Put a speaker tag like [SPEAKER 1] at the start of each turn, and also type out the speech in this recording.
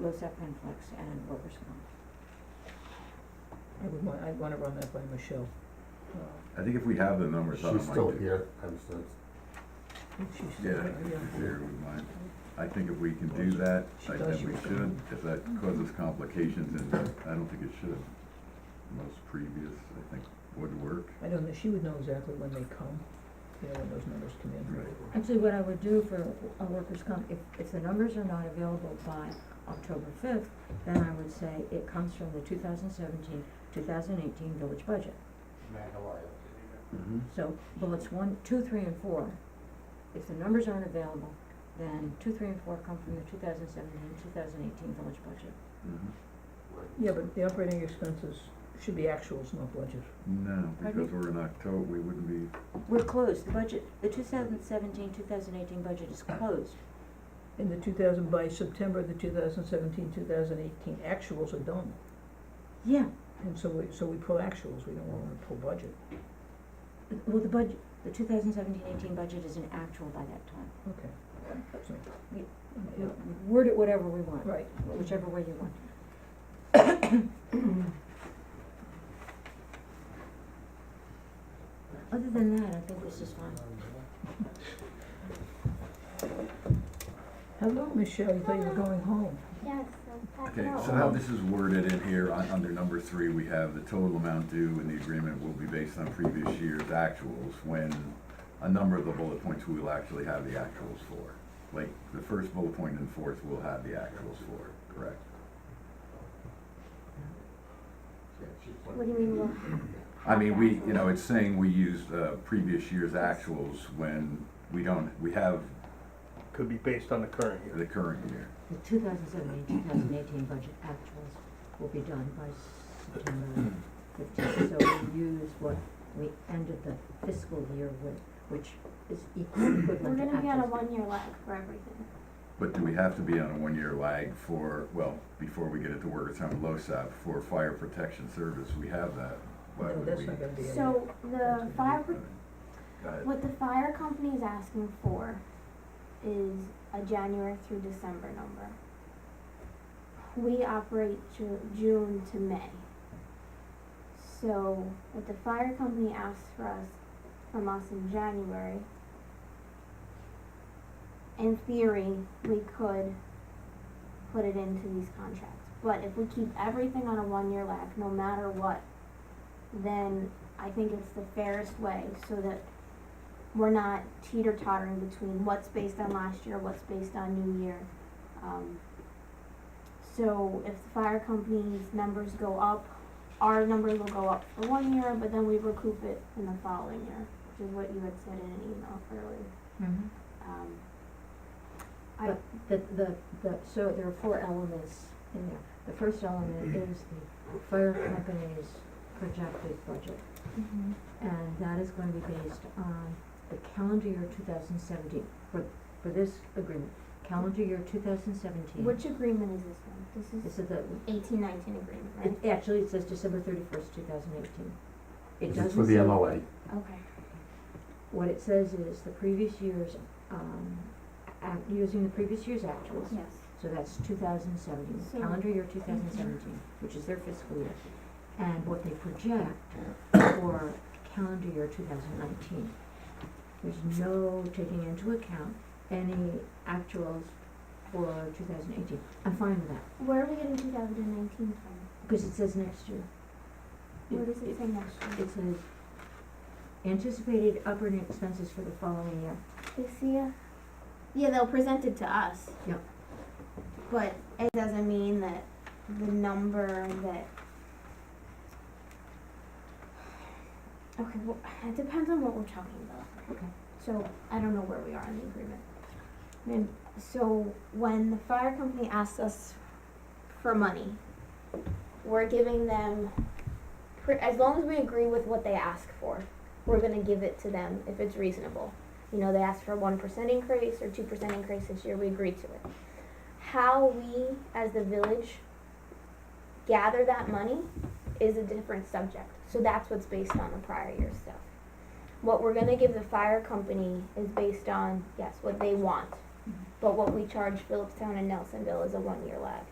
[SPEAKER 1] LoSAP conflicts and workers' comp.
[SPEAKER 2] I would want, I'd wanna run that by Michelle. Uh,
[SPEAKER 3] I think if we have the numbers, I
[SPEAKER 4] She's
[SPEAKER 3] don't
[SPEAKER 4] still
[SPEAKER 3] mind.
[SPEAKER 4] here, I'm still,
[SPEAKER 2] if she's-
[SPEAKER 3] Yeah,
[SPEAKER 2] yeah.
[SPEAKER 3] here we might. I think if we can do that,
[SPEAKER 2] She
[SPEAKER 3] I
[SPEAKER 2] does,
[SPEAKER 3] think
[SPEAKER 2] she
[SPEAKER 3] we
[SPEAKER 2] was
[SPEAKER 3] should,
[SPEAKER 2] gonna-
[SPEAKER 3] if that causes complications, and I don't think it should. Most previous, I think, would work.
[SPEAKER 2] I don't know, she would know exactly when they come, you know, when those numbers come in.
[SPEAKER 3] Right.
[SPEAKER 1] Actually, what I would do for a workers' comp, if, if the numbers are not available by October fifth, then I would say it comes from the 2017-2018 village budget.
[SPEAKER 4] Matt, how are Mm-hmm.
[SPEAKER 1] So bullets one, two, three, and four, if the numbers aren't available, then two, three, and four come from the 2017-2018 village budget.
[SPEAKER 3] Mhm.
[SPEAKER 4] you?
[SPEAKER 2] Yeah, but the operating expenses should be actuals, not budget.
[SPEAKER 3] No,
[SPEAKER 1] Pardon?
[SPEAKER 3] because we're in October, we wouldn't be,
[SPEAKER 1] We're closed, the budget, the 2017-2018 budget is closed.
[SPEAKER 2] In the two thousand, by September, the 2017-2018 actuals are done.
[SPEAKER 1] Yeah,
[SPEAKER 2] And so we, so we pull actuals, we don't wanna pull budget.
[SPEAKER 1] well, the budget, the 2017-18 budget is an actual by that time.
[SPEAKER 2] Okay. So,
[SPEAKER 1] We-
[SPEAKER 2] yeah,
[SPEAKER 1] Word it whatever we want.
[SPEAKER 2] Right.
[SPEAKER 1] whichever way you want. Other than that, I think this is fine.
[SPEAKER 2] Hello, Michelle, you thought you were going home.
[SPEAKER 5] Yes, I'm back
[SPEAKER 3] okay,
[SPEAKER 5] out.
[SPEAKER 3] so how this is worded in here, on, under number three, we have the total amount due in the agreement will be based on previous year's actuals, when a number of the bullet points we will actually have the actuals for. Like, the first bullet point and fourth will have the actuals for, correct?
[SPEAKER 5] What do you mean, well,
[SPEAKER 3] I mean, we, you know, it's saying we used uh, previous year's actuals when we don't, we have
[SPEAKER 4] Could be based on the current
[SPEAKER 3] the current year.
[SPEAKER 1] The 2017-2018 budget actuals will be done by September fifteenth, so we use what we ended the fiscal year with, which is equal
[SPEAKER 5] we're
[SPEAKER 1] equivalent to
[SPEAKER 5] gonna be on a
[SPEAKER 1] actuals.
[SPEAKER 5] one-year lag for everything.
[SPEAKER 3] But do we have to be on a one-year lag for, well, before we get it to workers' comp LoSAP, for fire protection service, we have that. Why
[SPEAKER 2] No,
[SPEAKER 3] would
[SPEAKER 2] that's
[SPEAKER 3] we?
[SPEAKER 2] not gonna be in there.
[SPEAKER 5] So the fire, pro-
[SPEAKER 3] Go ahead.
[SPEAKER 5] what the fire company is asking for is a January through December number. We operate Ju- June to May. So what the fire company asks for us, from us in January, in theory, we could put it into these contracts. But if we keep everything on a one-year lag, no matter what, then I think it's the fairest way so that we're not teeter tottering between what's based on last year, what's based on new year. Um, so if the fire company's numbers go up, our numbers will go up for one year, but then we recoup it in the following year, which is what you had said in an email earlier.
[SPEAKER 1] Mhm.
[SPEAKER 5] Um,
[SPEAKER 1] The, the, the, so there are four elements in there. The first element
[SPEAKER 4] Mm-hmm.
[SPEAKER 1] is the fire company's projected budget. And that is going to be based on the calendar year two thousand seventeen, for, for this agreement, calendar year two thousand seventeen.
[SPEAKER 5] Which agreement is this one? This
[SPEAKER 1] This
[SPEAKER 5] is
[SPEAKER 1] is the,
[SPEAKER 5] eighteen nineteen agreement, right?
[SPEAKER 1] it, actually, it says December thirty-first, two thousand eighteen. It
[SPEAKER 4] It's for
[SPEAKER 1] doesn't
[SPEAKER 4] the
[SPEAKER 1] say,
[SPEAKER 4] MOA.
[SPEAKER 5] Okay.
[SPEAKER 1] what it says is the previous year's, um, act, using the previous year's actuals.
[SPEAKER 5] Yes.
[SPEAKER 1] So that's two thousand seventeen,
[SPEAKER 5] So-
[SPEAKER 1] calendar year two thousand seventeen, which is their fiscal year. And what they project for calendar year two thousand nineteen. There's no taking into account any actuals for two thousand eighteen. I'm fine with that,
[SPEAKER 5] Where are we getting two thousand and nineteen from?
[SPEAKER 1] because it says next year.
[SPEAKER 5] Where does it say next year?
[SPEAKER 1] It says anticipated operating expenses for the following year.
[SPEAKER 5] They see ya? Yeah, they'll present it to us.
[SPEAKER 1] Yep.
[SPEAKER 5] But it doesn't mean that the number that. Okay, well, it depends on what we're talking about.
[SPEAKER 1] Okay.
[SPEAKER 5] So I don't know where we are in the agreement. And so when the fire company asks us for money, we're giving them, pre- as long as we agree with what they ask for, we're gonna give it to them if it's reasonable you know, they asked for a 1% increase or 2% increase this year, we agreed to it. How we, as the village, gather that money is a different subject. So that's what's based on the prior year stuff. What we're going to give the fire company is based on, yes, what they want. But what we charge Phillipstown and Nelsonville is a one year lag.